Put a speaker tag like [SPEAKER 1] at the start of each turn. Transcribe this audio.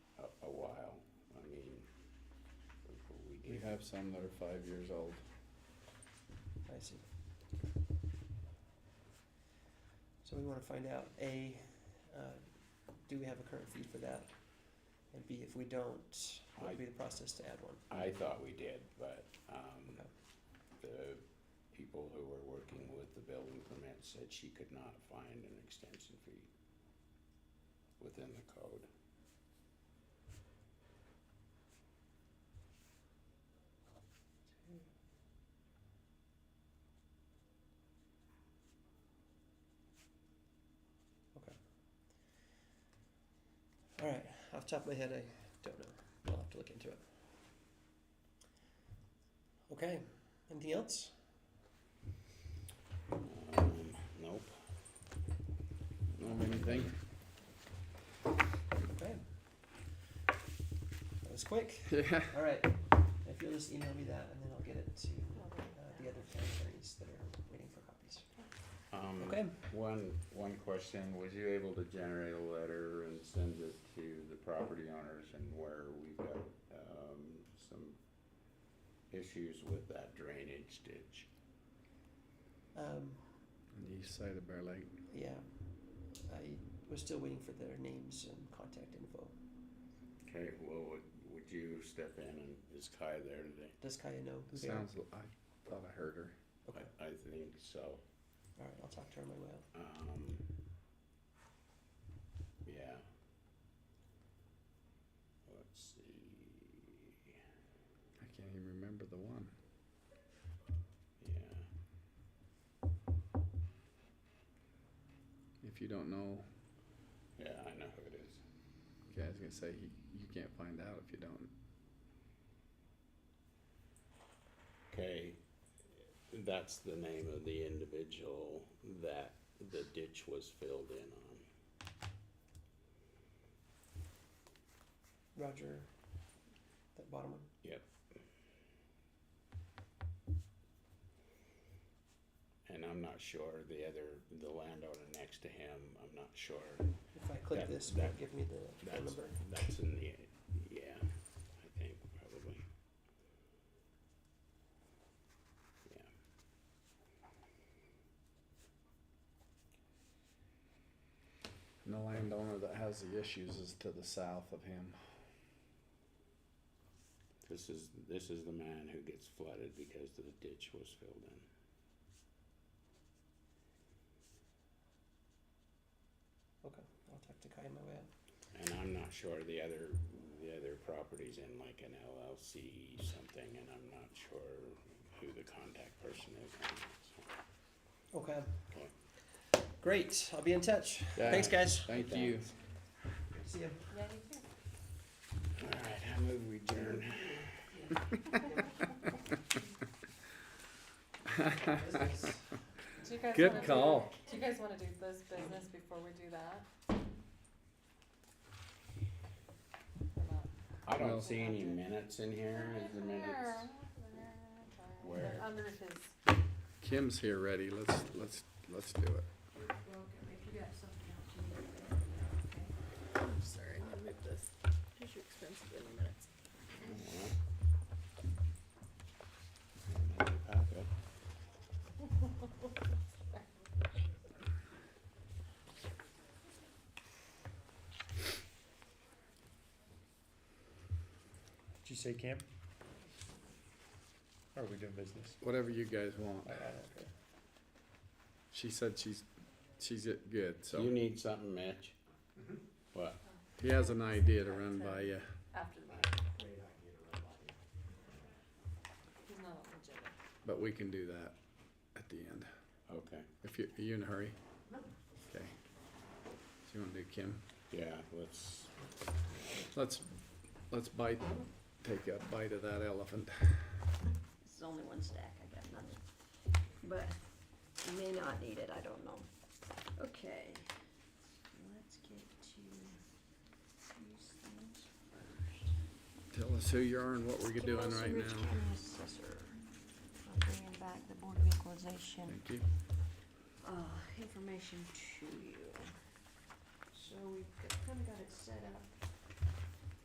[SPEAKER 1] have some that are five years old.
[SPEAKER 2] I see. So we wanna find out, A, uh, do we have a current fee for that? And B, if we don't, what would be the process to add one?
[SPEAKER 3] I thought we did, but um,
[SPEAKER 2] Okay.
[SPEAKER 3] the people who were working with the building permit said she could not find an extension fee within the code.
[SPEAKER 2] Okay. All right, off the top of my head, I don't know. I'll have to look into it. Okay, anything else?
[SPEAKER 3] Um, Nope. Not anything.
[SPEAKER 2] Okay. That was quick. All right, if you'll just email me that and then I'll get it to uh, the other town attorneys that are waiting for copies.
[SPEAKER 3] Um,
[SPEAKER 2] Okay.
[SPEAKER 3] One, one question, was you able to generate a letter and send it to the property owners and where we've got, um, some issues with that drainage ditch?
[SPEAKER 2] Um,
[SPEAKER 1] On the east side of Bear Lake.
[SPEAKER 2] yeah, I was still waiting for their names and contact info.
[SPEAKER 3] Okay, well, would, would you step in and is Kai there today?
[SPEAKER 2] Does Kaya know who they are?
[SPEAKER 1] Sounds, I thought I heard her.
[SPEAKER 2] Okay,
[SPEAKER 3] I, I think so.
[SPEAKER 2] all right, I'll talk to her on my way out.
[SPEAKER 3] Um, yeah. Let's see.
[SPEAKER 1] I can't even remember the one.
[SPEAKER 3] Yeah.
[SPEAKER 1] If you don't know,
[SPEAKER 3] Yeah, I know who it is.
[SPEAKER 1] okay, I was gonna say, you, you can't find out if you don't.
[SPEAKER 3] Okay, that's the name of the individual that the ditch was filled in on.
[SPEAKER 2] Roger, that bottom one.
[SPEAKER 3] Yep. And I'm not sure the other, the landowner next to him, I'm not sure.
[SPEAKER 2] If I click
[SPEAKER 3] That-
[SPEAKER 2] this, will
[SPEAKER 3] that-
[SPEAKER 2] it give me the phone
[SPEAKER 3] That's,
[SPEAKER 2] number?
[SPEAKER 3] that's in the, yeah, I think probably. Yeah.
[SPEAKER 1] And the landowner that has the issues is to the south of him.
[SPEAKER 3] This is, this is the man who gets flooded because the ditch was filled in.
[SPEAKER 2] Okay, I'll talk to Kai on my way out.
[SPEAKER 3] And I'm not sure the other, the other properties in like an LLC something, and I'm not sure who the contact person is. on it, so.
[SPEAKER 2] Okay,
[SPEAKER 3] Okay.
[SPEAKER 2] great, I'll be in touch. Thanks, guys.
[SPEAKER 1] Thank you.
[SPEAKER 2] See ya.
[SPEAKER 4] Yeah, you too.
[SPEAKER 3] All right, I move we adjourn.
[SPEAKER 2] Business.
[SPEAKER 4] Do you guys
[SPEAKER 1] Good
[SPEAKER 4] wanna do-
[SPEAKER 1] call.
[SPEAKER 4] Do you guys wanna do this business before we do that? Or not?
[SPEAKER 3] I
[SPEAKER 1] Well-
[SPEAKER 3] don't see any minutes in here. Is the minutes? Where?
[SPEAKER 4] They're Under his,
[SPEAKER 1] Kim's here ready, let's, let's, let's do it.
[SPEAKER 5] Well, if you got something else you need to do,
[SPEAKER 6] I'm sorry, I'm gonna move this. Here's your expensive in a minute.
[SPEAKER 3] Packet.
[SPEAKER 7] Did you say camp? Or Are we doing business?
[SPEAKER 1] Whatever you guys want.
[SPEAKER 2] I- I don't care.
[SPEAKER 1] She said she's, she's good,
[SPEAKER 3] You
[SPEAKER 1] so
[SPEAKER 3] need something, Mitch? What?
[SPEAKER 1] he has an idea to run by you.
[SPEAKER 4] after the meeting. He's not on the agenda.
[SPEAKER 1] But we can do that at the end.
[SPEAKER 3] Okay.
[SPEAKER 1] If you, are you in a hurry? Okay. So you wanna do Kim?
[SPEAKER 3] Yeah, let's,
[SPEAKER 1] Let's, let's bite, take a bite of that elephant.
[SPEAKER 6] This is only one stack, I got nothing. But you may not need it, I don't know. Okay, let's get to these things first.
[SPEAKER 1] Tell us who you are and what we're doing right
[SPEAKER 6] Rich
[SPEAKER 1] now.
[SPEAKER 6] County Assessor. I'm bringing back the Board of Equalization
[SPEAKER 1] Thank you.
[SPEAKER 6] uh, information to you. So we've kind of got it set up